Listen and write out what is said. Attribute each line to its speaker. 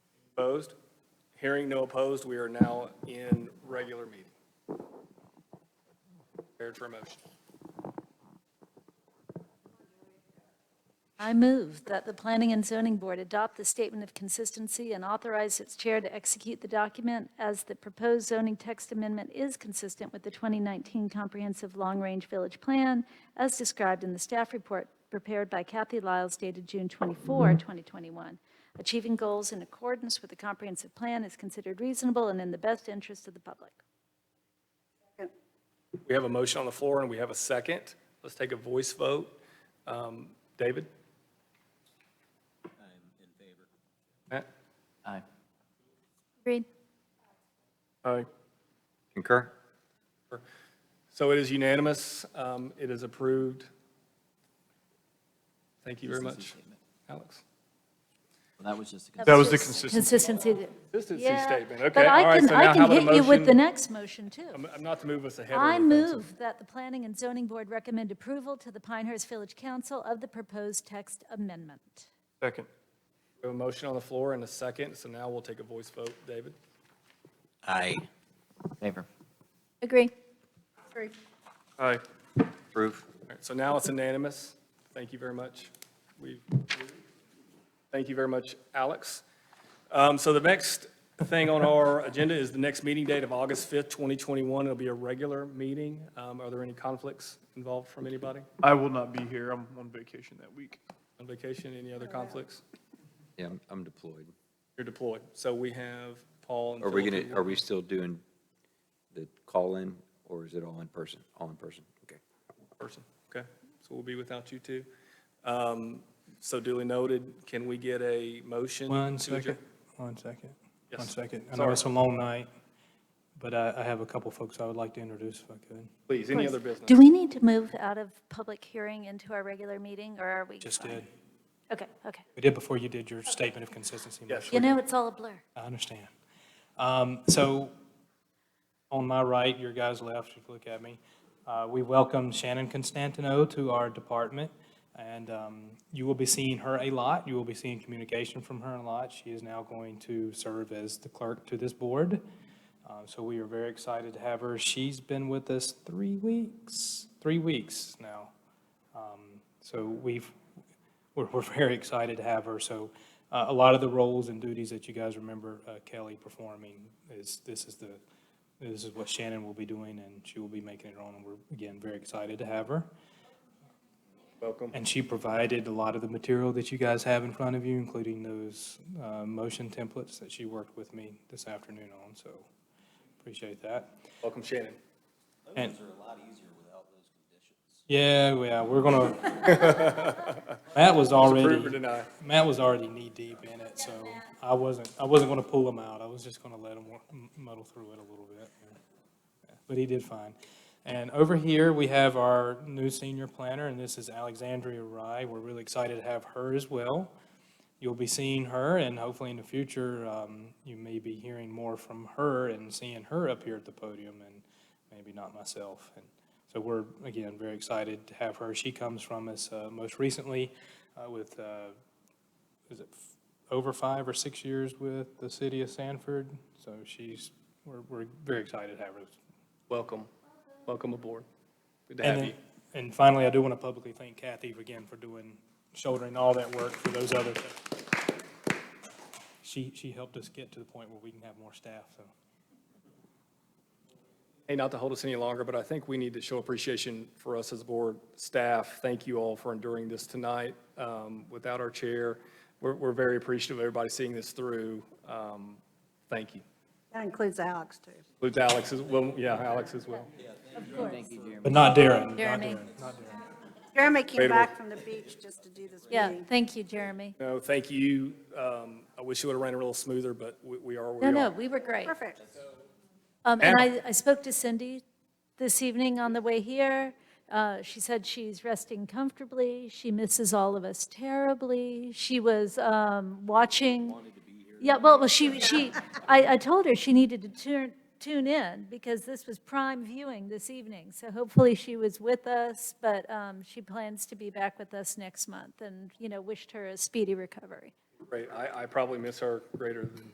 Speaker 1: Opposed? Hearing no opposed, we are now in regular meeting. Prepared for a motion.
Speaker 2: I move that the Planning and Zoning Board adopt the statement of consistency and authorize its chair to execute the document as the proposed zoning text amendment is consistent with the 2019 Comprehensive Long-Range Village Plan as described in the staff report prepared by Kathy Lyles dated June
Speaker 1: Mm-hmm.
Speaker 2: 24, 2021. Achieving goals in accordance with the comprehensive plan is considered reasonable and in the best interest of the public.
Speaker 1: We have a motion on the floor and we have a second. Let's take a voice vote. Um, David? I'm in favor.
Speaker 3: Aye.
Speaker 2: Agreed.
Speaker 1: Matt? Aye.
Speaker 3: Concur?
Speaker 1: So it is unanimous. Um, It is approved. Thank you very much, Alex.
Speaker 3: Well, that was just a,
Speaker 4: That was the
Speaker 2: just
Speaker 4: consistency.
Speaker 2: Consistency. that-
Speaker 1: Consistency
Speaker 2: Yeah,
Speaker 1: statement,
Speaker 2: but
Speaker 1: okay.
Speaker 2: I
Speaker 1: all right,
Speaker 2: can-
Speaker 1: so now
Speaker 2: I can
Speaker 1: how about a
Speaker 2: hit you with the
Speaker 1: motion?
Speaker 2: next motion, too.
Speaker 1: I'm- I'm not to move us ahead. or
Speaker 2: I
Speaker 1: anything, so-
Speaker 2: move that the Planning and Zoning Board recommend approval to the Pinehurst Village Council of the proposed text amendment.
Speaker 4: Second.
Speaker 1: We have a motion on the floor and a second, so now we'll take a voice vote. David?
Speaker 5: Aye.
Speaker 3: favor.
Speaker 2: Agree.
Speaker 4: Aye.
Speaker 5: Approve.
Speaker 1: All right, so now it's unanimous. Thank you very much. We, thank you very much, Alex. Um, So the next thing on our agenda is the next meeting date of August 5th, 2021. It'll be a regular meeting. Um, Are there any conflicts involved from anybody
Speaker 4: I will not be here. I'm on vacation that week.
Speaker 1: on vacation? Any other conflicts?
Speaker 6: Yeah, I'm- I'm deployed.
Speaker 1: You're deployed. So we have Paul and
Speaker 6: Are we
Speaker 1: Philip.
Speaker 6: going to, are we still doing the call-in, or is it all in person? All in person, okay.
Speaker 1: person, okay? So we'll be without you two. Um, So duly noted, can we get a motion?
Speaker 7: One
Speaker 1: to adjourn?
Speaker 7: second, one second, one
Speaker 1: Yes.
Speaker 7: second. I know
Speaker 1: Sorry.
Speaker 7: it's a long night, but I, I have a couple folks I would like to introduce if I could.
Speaker 1: Please, any other business?
Speaker 2: Do we need to move out of public hearing into our regular meeting, or are we?
Speaker 7: Just
Speaker 2: fine?
Speaker 7: did,
Speaker 2: Okay, okay.
Speaker 7: we did before you did your statement of consistency.
Speaker 1: Yes.
Speaker 2: You know, it's all a blur.
Speaker 7: I understand. Um, So on my right, your guys left, if you look at me, uh, we welcome Shannon Constantino to our department. And um, you will be seeing her a lot. You will be seeing communication from her a lot. She is now going to serve as the clerk to this board. Uh, So we are very excited to have her. She's been with us three weeks, three weeks now. Um, So we've, we're, we're very excited to have her. So uh, a lot of the roles and duties that you guys remember uh, Kelly performing is, this is the, this is what Shannon will be doing and she will be making it her own. And we're, again, very excited to have her.
Speaker 1: Welcome.
Speaker 7: And she provided a lot of the material that you guys have in front of you, including those uh, motion templates that she worked with me this afternoon on. So appreciate that.
Speaker 1: Welcome, Shannon.
Speaker 7: And-
Speaker 3: are a lot easier without those conditions.
Speaker 7: Yeah, yeah, we're gonna, Matt was
Speaker 1: Approve or
Speaker 7: already,
Speaker 1: deny?
Speaker 7: Matt was already knee-deep in it, so I wasn't, I wasn't gonna pull him out. I was just gonna let him wa- m- muddle through it a little bit. But he did fine. And over here, we have our new senior planner, and this is Alexandria Rye. We're really excited to have her as well. You'll be seeing her, and hopefully in the future, um, you may be hearing more from her and seeing her up here at the podium, and maybe not myself. And so we're, again, very excited to have her. She comes from us uh, most recently uh, with uh, is it f- over five or six years with the city of Sanford? So she's, we're, we're very excited to have her.
Speaker 1: Welcome. Welcome aboard. Good to
Speaker 7: And
Speaker 1: have
Speaker 7: then-
Speaker 1: you.
Speaker 7: And finally, I do want to publicly thank Kathy again for doing, shouldering all that work for those others. She, she helped us get to the point where we can have more staff, so.
Speaker 1: Hey, not to hold us any longer, but I think we need to show appreciation for us as a board staff. Thank you all for enduring this tonight. Um, Without our chair, we're, we're very appreciative of everybody seeing this through. Um, Thank you.
Speaker 8: That includes Alex, too.
Speaker 1: With Alex as well, yeah, Alex as well.
Speaker 2: Of course.
Speaker 7: But not Darren, not
Speaker 2: Jeremy.
Speaker 7: Darren, not Darren.
Speaker 8: Jeremy
Speaker 1: Wait a
Speaker 8: came back from the beach just to do this
Speaker 2: Yeah,
Speaker 8: meeting.
Speaker 2: thank you, Jeremy.
Speaker 1: No, thank you. Um, I wish it would have ran a little smoother, but we, we are
Speaker 2: No,
Speaker 1: where we
Speaker 2: no,
Speaker 1: are.
Speaker 2: we were great.
Speaker 8: Perfect.
Speaker 2: Um, And
Speaker 1: Anna.
Speaker 2: I, I spoke to Cindy this evening on the way here. Uh, She said she's resting comfortably, she misses all of us terribly, she was um, watching. Yeah, well, well, she, she, I, I told her she needed to tune, tune in, because this was prime viewing this evening, so hopefully she was with us, but um, she plans to be back with us next month, and, you know, wished her a speedy recovery.
Speaker 1: Great. I, I probably miss her greater than